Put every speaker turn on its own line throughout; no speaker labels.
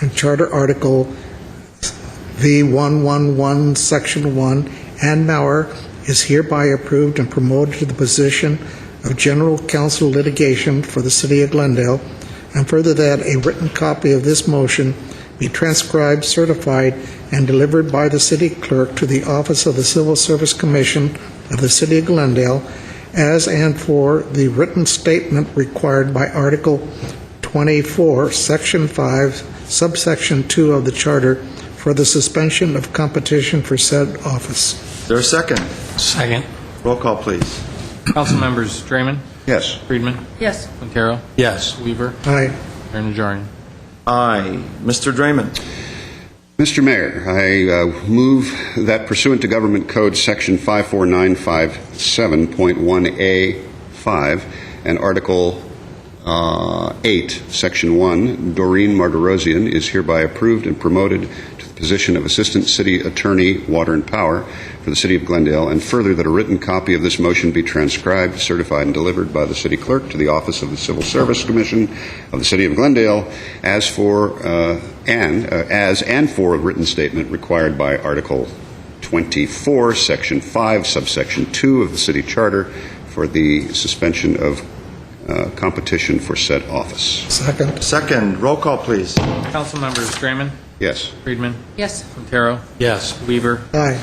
and Charter Article V111, Section 1, Ann Mauer is hereby approved and promoted to the position of General Counsel Litigation for the City of Glendale, and further that a written copy of this motion be transcribed, certified, and delivered by the city clerk to the office of the Civil Service Commission of the City of Glendale as and for the written statement required by Article 24, Section 5, subsection 2 of the Charter for the suspension of competition for said office.
Is there a second?
Second.
Roll call, please.
Council members Draymond,
Yes.
Friedman,
Yes.
Quintero. Yes. Weaver,
Aye.
Mayor Najarian.
Aye. Mr. Draymond.
Mr. Mayor, I uh, move that pursuant to Government Code Section 54957.1A5 and Article uh, 8, Section 1, Doreen Marderosian is hereby approved and promoted to the position of Assistant City Attorney, Water and Power for the City of Glendale, and further that a written copy of this motion be transcribed, certified, and delivered by the City Clerk to the Office of the Civil Service Commission of the City of Glendale as for, uh, and, uh, as and for a written statement required by Article 24, Section 5, subsection 2 of the City Charter for the suspension of uh, competition for said office.
Second.
Second. Roll call, please.
Council members Draymond,
Yes.
Friedman,
Yes.
Quintero. Yes. Weaver,
Aye.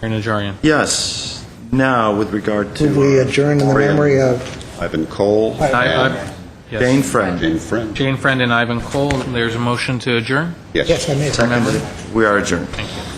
Mayor Najarian.
Yes. Now, with regard to... uh,
We adjourn in the
Fran.
memory of
Ivan Cole.
I- I-
and
yes.
Jane Friend.
Jane Friend.
Jane Friend and Ivan Cole, there's a motion to adjourn.
Yes.
Yes, I made it.
Seconded. We are adjourned.
Thank you.